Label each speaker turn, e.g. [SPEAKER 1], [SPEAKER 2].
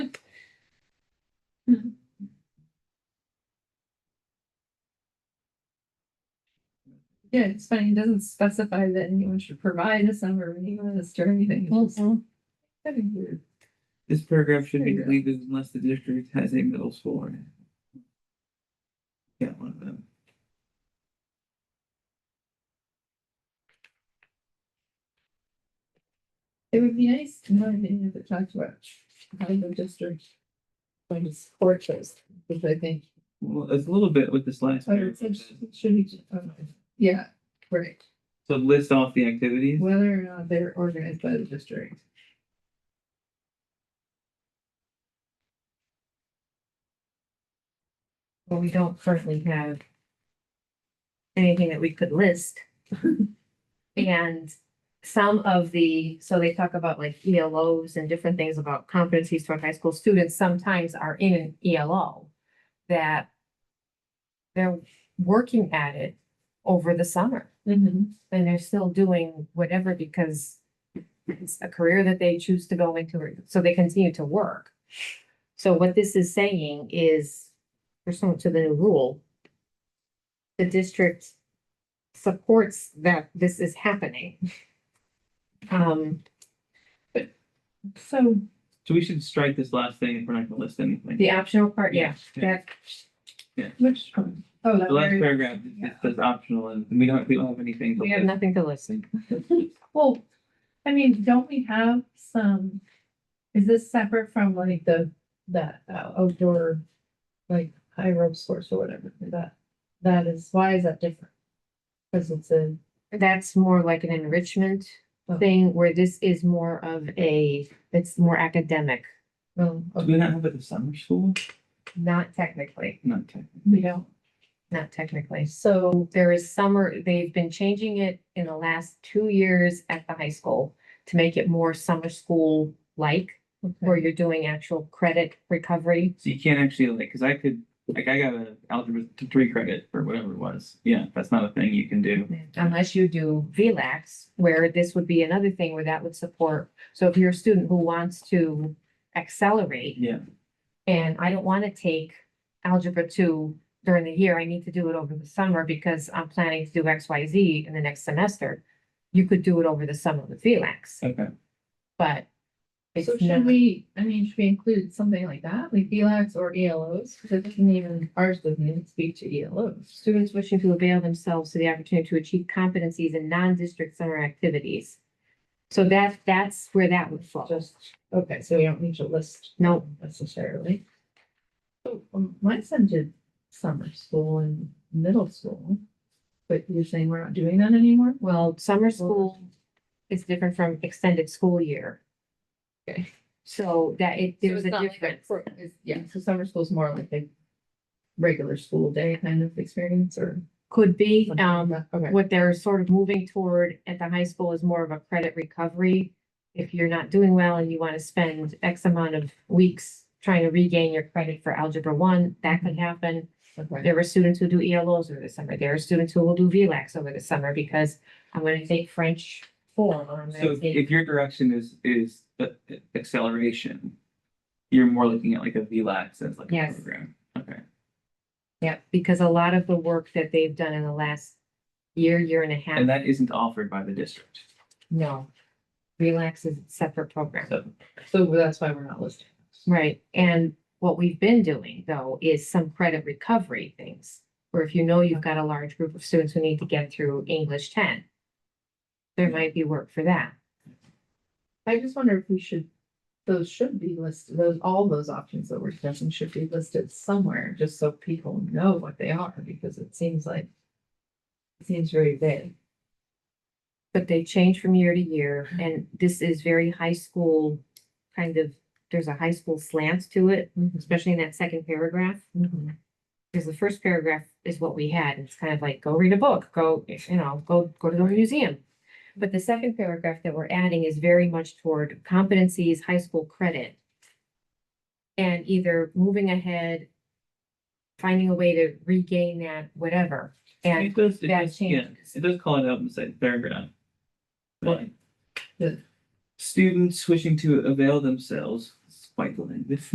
[SPEAKER 1] Yeah, it's funny, it doesn't specify that anyone should provide a summary list or anything.
[SPEAKER 2] Oh,
[SPEAKER 1] It's just- That'd be weird.
[SPEAKER 3] This paragraph should be
[SPEAKER 1] There you go.
[SPEAKER 3] deleted unless the district has a middle school. in it. Yeah, one of them.
[SPEAKER 1] It would be nice, in my opinion, if it talked about how the district. Going to support those, because I think,
[SPEAKER 3] Well, it's a little bit with this last
[SPEAKER 1] oh, it said
[SPEAKER 3] paragraph.
[SPEAKER 1] sh- should be, okay. oh, yeah, right,
[SPEAKER 3] So list off the activities.
[SPEAKER 1] whether or not they're organized by the district.
[SPEAKER 2] Well, we don't currently have anything that we could list. And some of the, so they talk about like ELOs and different things about competencies toward high school students sometimes are in an ELO that they're working at it over the summer
[SPEAKER 1] Mm-hmm.
[SPEAKER 2] and they're still doing whatever because it's a career that they choose to go into, or- so they continue to work. So what this is saying is pursuant to the new rule, the district supports that this is happening. Um,
[SPEAKER 1] So,
[SPEAKER 3] So we should strike this last thing if we're not gonna list anything.
[SPEAKER 2] the optional part, yeah, that,
[SPEAKER 1] which, one? oh, that
[SPEAKER 3] The last
[SPEAKER 1] very,
[SPEAKER 3] paragraph is just says optional and we don't, we don't have anything. to
[SPEAKER 2] we have
[SPEAKER 3] list.
[SPEAKER 2] nothing to listen.
[SPEAKER 1] well, I mean, don't we have some? Is this separate from like the, that uh, outdoor, like high rope sports or whatever, that, that is, why is that different? Cause it's a.
[SPEAKER 2] That's more like an enrichment thing where this is more of a, it's more academic,
[SPEAKER 1] Well,
[SPEAKER 3] Do we not have it in summer school?
[SPEAKER 2] not technically,
[SPEAKER 3] Not technically.
[SPEAKER 1] we don't,
[SPEAKER 2] not technically.
[SPEAKER 1] so,
[SPEAKER 2] there is summer, they've been changing it in the last two years at the high school to make it more summer school like, where
[SPEAKER 1] okay,
[SPEAKER 2] you're doing actual credit recovery.
[SPEAKER 3] So you can't actually like, cause I could, like I got a algebra th- three credit or whatever it was. Yeah, that's not a thing you can do.
[SPEAKER 2] Unless you do VLAX, where this would be another thing where that would support. So if you're a student who wants to accelerate
[SPEAKER 3] Yeah,
[SPEAKER 2] and I don't want to take algebra two during the year, I need to do it over the summer because I'm planning to do X, Y, Z in the next semester. You could do it over the summer with VLAX,
[SPEAKER 3] okay.
[SPEAKER 2] but it's
[SPEAKER 1] so
[SPEAKER 2] not.
[SPEAKER 1] should we, I mean, should we include something like that, like ELACs or ELOs, cause it doesn't even, ours doesn't even speak to E ELOs.
[SPEAKER 2] Students wishing to avail themselves to the opportunity to achieve competencies in non-district summer activities. So that, that's where that would fall.
[SPEAKER 1] Just, okay, so we don't need to list
[SPEAKER 2] No,
[SPEAKER 1] necessarily. So, um, my son did summer school and middle school, but you're saying we're not doing that anymore?
[SPEAKER 2] well, summer school is different from extended school year.
[SPEAKER 1] Okay.
[SPEAKER 2] So that it, there's a difference.
[SPEAKER 1] Yeah, so summer school's more like a regular school day kind of experience or.
[SPEAKER 2] Could be,
[SPEAKER 1] something like
[SPEAKER 2] um,
[SPEAKER 1] that? Okay,
[SPEAKER 2] what they're sort of moving toward at the high school is more of a credit recovery. If you're not doing well and you want to spend X amount of weeks trying to regain your credit for algebra one, that could happen.
[SPEAKER 1] okay,
[SPEAKER 2] There were students who do ELOs over the summer. There are students who will do VLAX over the summer because I'm gonna take French form or I'm
[SPEAKER 3] So
[SPEAKER 2] gonna take.
[SPEAKER 3] if your direction is, is uh, acceleration, you're more looking at like a VLAX as like a
[SPEAKER 2] Yes.
[SPEAKER 3] program. Okay.
[SPEAKER 2] Yeah, because a lot of the work that they've done in the last year, year and a
[SPEAKER 3] And
[SPEAKER 2] half,
[SPEAKER 3] that isn't offered by the district.
[SPEAKER 2] no. VLAX is a separate program.
[SPEAKER 3] So
[SPEAKER 1] so that's why we're not listing.
[SPEAKER 2] Right, and what we've been doing though is some credit recovery things, where if you know you've got a large group of students who need to get through English ten. There might be work for that.
[SPEAKER 1] I just wonder if we should, those should be listed, those, all those options that we're discussing should be listed somewhere, just so people know what they are, because it seems like. it Seems very vague.
[SPEAKER 2] But they change from year to year, and this is very high school, kind of, there's a high school slant to it, especially in that second paragraph.
[SPEAKER 1] Mhm.
[SPEAKER 2] Because the first paragraph is what we had, and it's kind of like, go read a book, go, you know, go, go to the museum. But the second paragraph that we're adding is very much toward competencies, high school credit. And either moving ahead, finding a way to regain that, whatever, and
[SPEAKER 3] it does, it
[SPEAKER 2] that
[SPEAKER 3] does, yeah,
[SPEAKER 2] changes.
[SPEAKER 3] it does call it out and say paragraph.
[SPEAKER 2] What?
[SPEAKER 1] The-
[SPEAKER 3] Students wishing to avail themselves, it's quite the language.